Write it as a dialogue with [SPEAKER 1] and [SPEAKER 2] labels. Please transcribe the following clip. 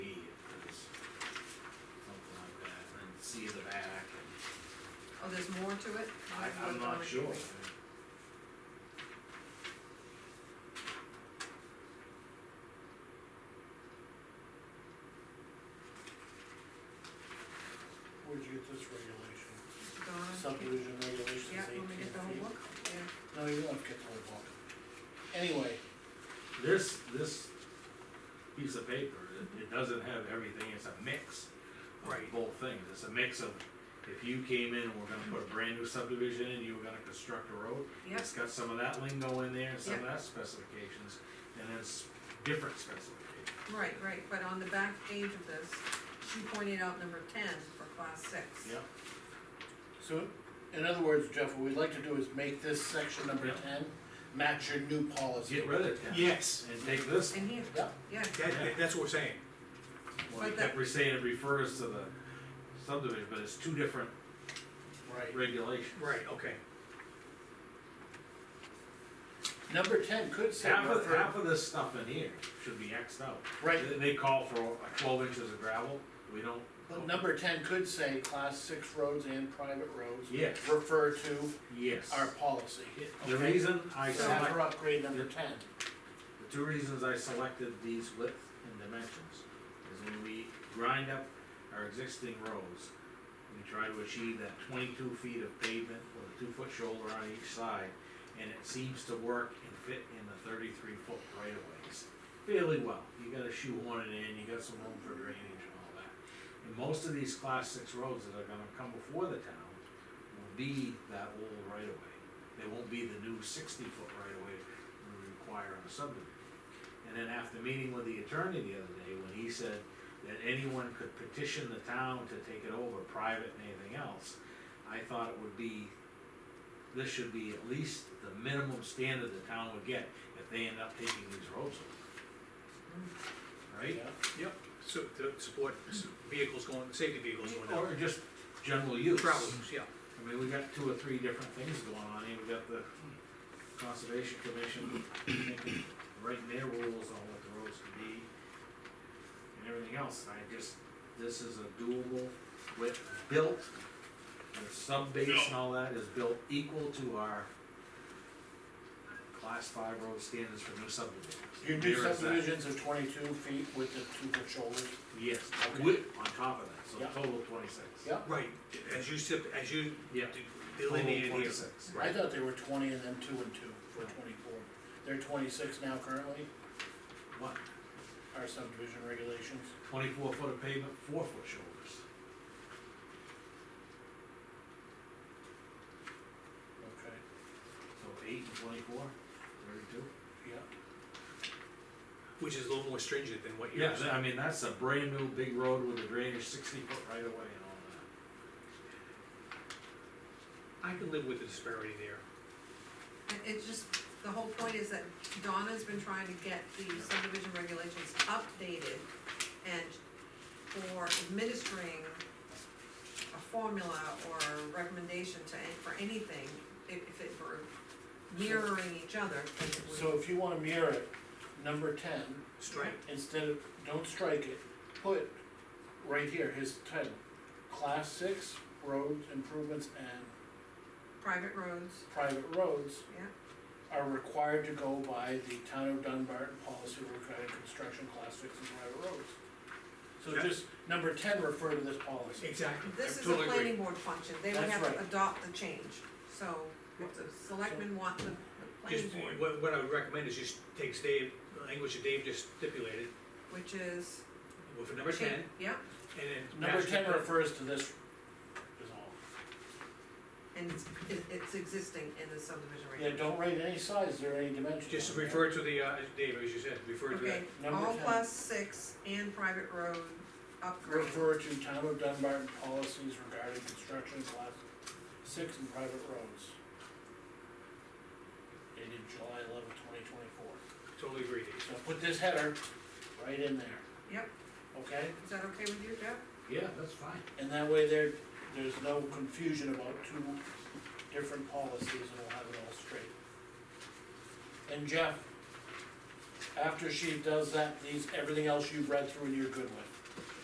[SPEAKER 1] Oh, there's more to it?
[SPEAKER 2] I, I'm not sure.
[SPEAKER 3] Where'd you get this regulation?
[SPEAKER 1] Donna,
[SPEAKER 3] Subdivision regulations
[SPEAKER 1] yeah,
[SPEAKER 3] eighteen
[SPEAKER 1] want me to get the whole
[SPEAKER 3] feet.
[SPEAKER 1] book? Yeah,
[SPEAKER 3] No, you won't get the whole book. Anyway,
[SPEAKER 2] This, this piece of paper, it, it doesn't have everything, it's a mix of
[SPEAKER 3] Right.
[SPEAKER 2] both things, it's a mix of, if you came in and we're gonna put a brand new subdivision in, you were gonna construct a road,
[SPEAKER 1] yep,
[SPEAKER 2] it's got some of that lingo in there, and some of that specifications, and then it's different specifications.
[SPEAKER 1] right, right, but on the back page of this, she pointed out number ten for class six.
[SPEAKER 3] so, in other words, Jeff, what we'd like to do is make this section number
[SPEAKER 2] Yeah.
[SPEAKER 3] ten match your new policy.
[SPEAKER 2] Get rid of that.
[SPEAKER 4] Yes,
[SPEAKER 2] And take this,
[SPEAKER 1] And here,
[SPEAKER 3] Yeah,
[SPEAKER 1] yeah,
[SPEAKER 4] that, that- that's what we're saying.
[SPEAKER 2] well, they
[SPEAKER 1] But that-
[SPEAKER 2] kept saying it refers to the subdivision, but it's two different
[SPEAKER 3] right.
[SPEAKER 2] regulations.
[SPEAKER 4] Right, okay.
[SPEAKER 3] Number ten could say.
[SPEAKER 2] Half of,
[SPEAKER 3] refer-
[SPEAKER 2] half of this stuff in here should be Xed out.
[SPEAKER 3] Right.
[SPEAKER 2] They- They call for like twelve inches of gravel, we don't.
[SPEAKER 3] But number ten could say class six roads and private roads.
[SPEAKER 2] Yes.
[SPEAKER 3] Refer to
[SPEAKER 2] Yes.
[SPEAKER 3] our policy.
[SPEAKER 2] The
[SPEAKER 3] okay?
[SPEAKER 2] reason I
[SPEAKER 3] So that's
[SPEAKER 2] select,
[SPEAKER 3] for upgrade number ten.
[SPEAKER 2] the two reasons I selected these width and dimensions is when we grind up our existing roads, we try to achieve that twenty-two feet of pavement with a two-foot shoulder on each side, and it seems to work and fit in the thirty-three foot right of ways fairly well. You got a shoehorn it in, you got some room for drainage and all that. And most of these class six roads that are gonna come before the town will be that old right of way. They won't be the new sixty foot right of way we require on a subdivision. And then after meeting with the attorney the other day, when he said that anyone could petition the town to take it over, private and anything else, I thought it would be, this should be at least the minimum standard the town would get if they end up taking these roads over. Right?
[SPEAKER 3] Yeah.
[SPEAKER 4] Yep. So, to support s- vehicles going, safety vehicles going down.
[SPEAKER 2] Or just general use.
[SPEAKER 4] Travel, yeah.
[SPEAKER 2] I mean, we got two or three different things going on here, we got the conservation commission thinking, writing their rules on what the roads could be. And everything else, And I just, this is a doable with, built, the sub base and all that is built equal to our class five road standards for new subdivisions.
[SPEAKER 3] Your new
[SPEAKER 2] There is that.
[SPEAKER 3] subdivisions are twenty-two feet with the two-foot shoulders.
[SPEAKER 2] Yes,
[SPEAKER 3] Okay.
[SPEAKER 2] with, on top of that,
[SPEAKER 3] Yeah.
[SPEAKER 2] so total twenty-six.
[SPEAKER 3] Yeah.
[SPEAKER 4] Right, as you sip, as you
[SPEAKER 2] Yeah.
[SPEAKER 4] d-
[SPEAKER 2] Total
[SPEAKER 4] delineated here.
[SPEAKER 2] 26.
[SPEAKER 3] I thought they were twenty and then two and two for twenty-four. They're twenty-six now currently,
[SPEAKER 2] What,
[SPEAKER 3] our subdivision regulations.
[SPEAKER 2] twenty-four foot of pavement, four foot shoulders.
[SPEAKER 3] Okay.
[SPEAKER 2] So eight and twenty-four, thirty-two?
[SPEAKER 3] Yeah.
[SPEAKER 4] Which is a little more stringent than what
[SPEAKER 2] Yeah,
[SPEAKER 4] yours.
[SPEAKER 2] I mean, that's a brand new big road with a drainage sixty foot right away and all that.
[SPEAKER 4] I can live with the disparity there.
[SPEAKER 1] and it's just, the whole point is that Donna's been trying to get the subdivision regulations updated and for administering a formula or a recommendation to, an- for anything, if, if it were mirroring each other, then it would.
[SPEAKER 3] So if you wanna mirror it, number ten,
[SPEAKER 4] Strike,
[SPEAKER 3] instead of, don't strike it, put right here, his title. Class six roads improvements and
[SPEAKER 1] Private roads,
[SPEAKER 3] private roads
[SPEAKER 1] yeah,
[SPEAKER 3] are required to go by the town of Dunbarton policy regarding construction class six and private roads. So
[SPEAKER 4] Yeah.
[SPEAKER 3] just, number ten, refer to this policy.
[SPEAKER 4] exactly. I
[SPEAKER 1] this is a
[SPEAKER 4] totally agree.
[SPEAKER 1] planning board function, they would
[SPEAKER 3] That's
[SPEAKER 1] have to
[SPEAKER 3] right.
[SPEAKER 1] adopt the change, so if the selectmen want the, the
[SPEAKER 4] Just,
[SPEAKER 1] planning board,
[SPEAKER 4] what, what I would recommend is just takes Dave, language that Dave just stipulated,
[SPEAKER 1] which is.
[SPEAKER 4] with a number ten, and
[SPEAKER 1] Yeah,
[SPEAKER 4] then.
[SPEAKER 3] Number
[SPEAKER 4] match
[SPEAKER 3] ten
[SPEAKER 4] that-
[SPEAKER 3] refers to this, is all.
[SPEAKER 1] and it's, it- it's existing in the subdivision
[SPEAKER 3] Yeah,
[SPEAKER 1] regulation.
[SPEAKER 3] don't write any size or any dimensions.
[SPEAKER 4] Just refer to the, uh, Dave, as you said, refer to that.
[SPEAKER 1] Okay,
[SPEAKER 3] Number
[SPEAKER 1] all
[SPEAKER 3] 10.
[SPEAKER 1] plus six and private road upgrade.
[SPEAKER 3] Refer to town of Dunbarton policies regarding construction class six and private roads. Dated July eleventh, twenty twenty-four.
[SPEAKER 4] Totally agree, Dave.
[SPEAKER 3] So put this header right in there,
[SPEAKER 1] Yep,
[SPEAKER 3] okay?
[SPEAKER 1] is that okay with you, Jeff?
[SPEAKER 2] Yeah, that's fine.
[SPEAKER 3] And that way there, there's no confusion about two different policies and we'll have it all straight. And Jeff, after she does that, these, everything else you've read through and you're good with.